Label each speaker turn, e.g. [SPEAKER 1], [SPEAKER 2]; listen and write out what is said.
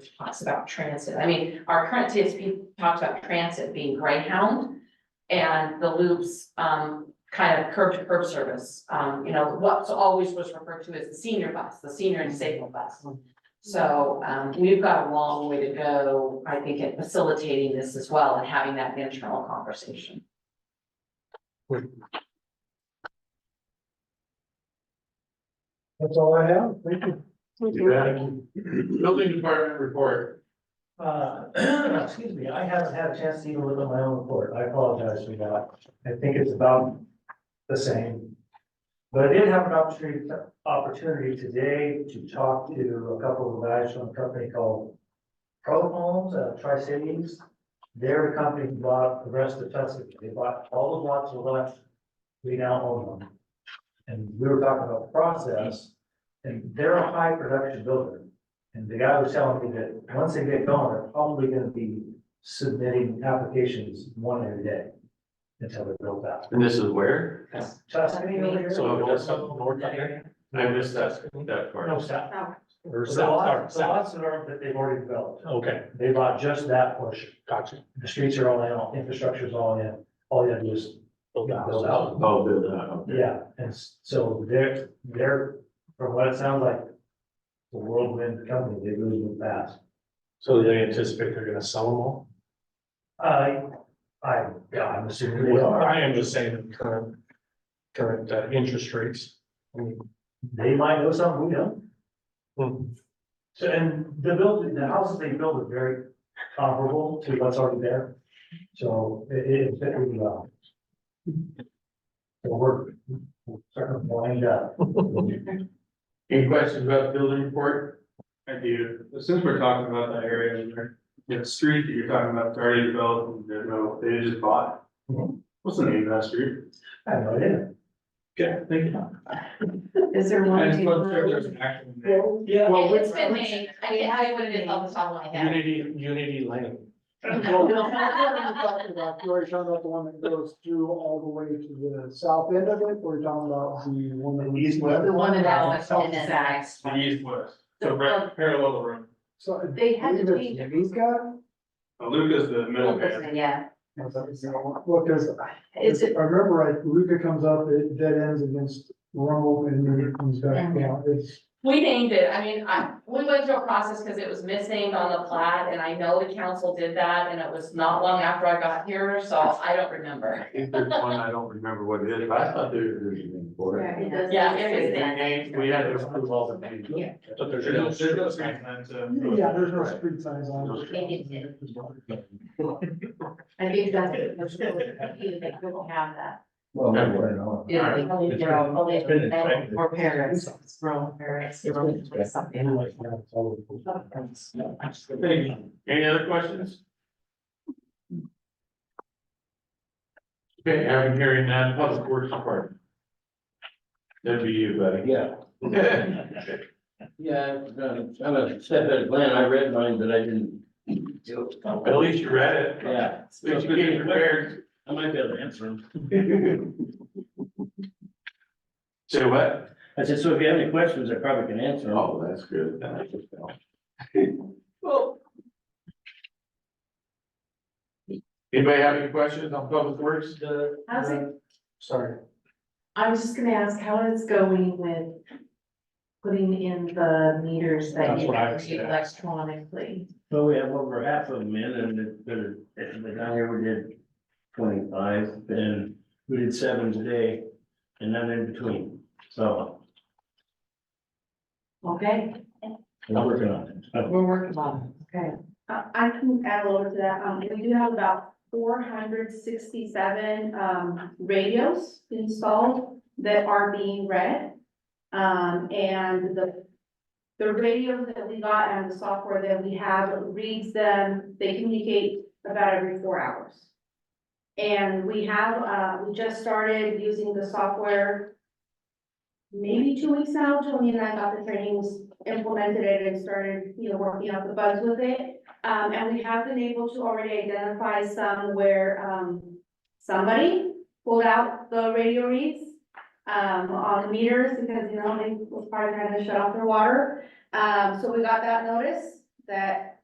[SPEAKER 1] which talks about transit. I mean, our current TSP talks about transit being Greyhound. And the loops, um, kind of curb to curb service, um, you know, what's always was referred to as the senior bus, the senior and disabled bus. So, um, we've got a long way to go, I think, in facilitating this as well and having that internal conversation.
[SPEAKER 2] That's all I have, thank you.
[SPEAKER 3] You bet. Building department report.
[SPEAKER 2] Uh, excuse me, I haven't had a chance to even look at my own report, I apologize for that, I think it's about the same. But I did have an opportunity, opportunity today to talk to a couple of guys from a company called Pro Homes, uh, Tri-Cities. They're a company who bought the rest of Tuscany, they bought all the lots left, we now own them. And we were talking about the process, and they're a high production builder. And the guy was telling me that once they get going, they're probably gonna be submitting applications one every day until they're built out.
[SPEAKER 3] And this is where?
[SPEAKER 2] Tuscany over here.
[SPEAKER 3] So it does something north of there? I missed that, that
[SPEAKER 2] No,
[SPEAKER 3] part.
[SPEAKER 2] south.
[SPEAKER 4] Or
[SPEAKER 2] The
[SPEAKER 4] south, or
[SPEAKER 2] lots, the
[SPEAKER 4] south,
[SPEAKER 2] lots that are, that they've already developed,
[SPEAKER 4] okay,
[SPEAKER 2] they bought just that portion.
[SPEAKER 4] gotcha.
[SPEAKER 2] The streets are all in, all infrastructure's all in, all you have to do is,
[SPEAKER 4] Build out.
[SPEAKER 2] Build out.
[SPEAKER 3] Oh, good, uh, okay.
[SPEAKER 2] yeah, and s- so they're, they're, from what it sounds like, the whirlwind company, they really move fast.
[SPEAKER 4] So they anticipate they're gonna sell them all?
[SPEAKER 2] I, I, yeah, I'm assuming they
[SPEAKER 4] Well,
[SPEAKER 2] are,
[SPEAKER 4] I am just saying the current, current uh, interest rates. I mean,
[SPEAKER 2] they might know something we don't.
[SPEAKER 4] hmm,
[SPEAKER 2] So, and the building, the houses they build are very comparable to what's already there, so it, it, it really well. It'll work, sort of wind up.
[SPEAKER 3] Any questions about the building report?
[SPEAKER 5] I do, since we're talking about that area, and there- the street that you're talking about, it's already developed, and there's no, they just bought. it. What's the name of that street?
[SPEAKER 2] I have no idea.
[SPEAKER 5] Yeah, thank you.
[SPEAKER 6] Is there
[SPEAKER 5] I
[SPEAKER 6] one?
[SPEAKER 5] just wasn't sure if there's
[SPEAKER 6] to-
[SPEAKER 5] an actual name.
[SPEAKER 2] Yeah.
[SPEAKER 5] Well,
[SPEAKER 1] It's been named, I can't tell you what it is off the top of my head.
[SPEAKER 4] Unity, Unity Lane.
[SPEAKER 7] talking about, you already talking about the one that goes through all the way to the south end of it, or you're talking about the one that leads west?
[SPEAKER 1] The one in Alex, and then
[SPEAKER 5] The east west, so right parallel to room.
[SPEAKER 7] So.
[SPEAKER 6] They had to
[SPEAKER 7] either
[SPEAKER 6] change it.
[SPEAKER 7] Javiska?
[SPEAKER 5] Uh, Luca's the middle man.
[SPEAKER 6] Yeah,
[SPEAKER 7] Well, cause
[SPEAKER 6] is
[SPEAKER 7] if
[SPEAKER 6] it,
[SPEAKER 7] I remember right, Luca comes up, it dead ends against Rumble and then it comes back down, it's.
[SPEAKER 1] We named it, I mean, I, we went through a process because it was misnamed on the plat, and I know the council did that, and it was not long after I got here, so I don't remember.
[SPEAKER 3] I think there's one, I don't remember what it is, but I thought there was a name for it.
[SPEAKER 6] it does.
[SPEAKER 1] Yeah, there is
[SPEAKER 3] The name, we had to approve all the names.
[SPEAKER 1] Yeah.
[SPEAKER 3] But
[SPEAKER 5] There's no, there's no street uh, sign to.
[SPEAKER 7] Yeah, there's no
[SPEAKER 3] Right.
[SPEAKER 7] street signs on
[SPEAKER 3] No
[SPEAKER 7] it.
[SPEAKER 6] street I think that's. that's what we do, that we will have that.
[SPEAKER 2] Well,
[SPEAKER 3] I
[SPEAKER 6] Yeah, they only grow, only
[SPEAKER 2] infected.
[SPEAKER 6] or parents, it's grown parents, it's grown like something.
[SPEAKER 3] Thank you. Any other questions? Okay, I'm hearing that, public works department. That'd be you, buddy.
[SPEAKER 8] Yeah, yeah, I'm a- I'm a step at a glance. I read mine, but I didn't. do it.
[SPEAKER 3] At least you read it.
[SPEAKER 8] Yeah.
[SPEAKER 3] At least you came prepared.
[SPEAKER 8] I might be able to answer them.
[SPEAKER 3] Say what?
[SPEAKER 8] I said, so if you have any questions, I probably can answer them.
[SPEAKER 3] Oh, that's good. That makes us feel- Anybody have any questions on public works?
[SPEAKER 6] How's it,
[SPEAKER 4] Sorry.
[SPEAKER 6] I was just gonna ask, how is going with putting in the meters that
[SPEAKER 4] That's
[SPEAKER 6] you
[SPEAKER 4] what I was
[SPEAKER 6] read
[SPEAKER 4] gonna
[SPEAKER 6] electronically?
[SPEAKER 8] So we have over half of them in and it's been, it's been down here, we did twenty-five and we did seven today and none in between, so.
[SPEAKER 6] Okay,
[SPEAKER 8] We're working on it.
[SPEAKER 6] we're working on it, okay.
[SPEAKER 9] Uh, I can add a little to that, um, we do have about four hundred sixty-seven, um, radios installed that are being read. Um, and the, the radios that we got and the software that we have reads them, they communicate about every four hours. And we have, uh, we just started using the software maybe two weeks now, Tony and I got the trainings, implemented it and started, you know, working out the bugs with it. Um, and we have been able to already identify some where, um, somebody pulled out the radio reads. Um, on the meters because, you know, they was probably trying to shut off their water. Um, so we got that notice that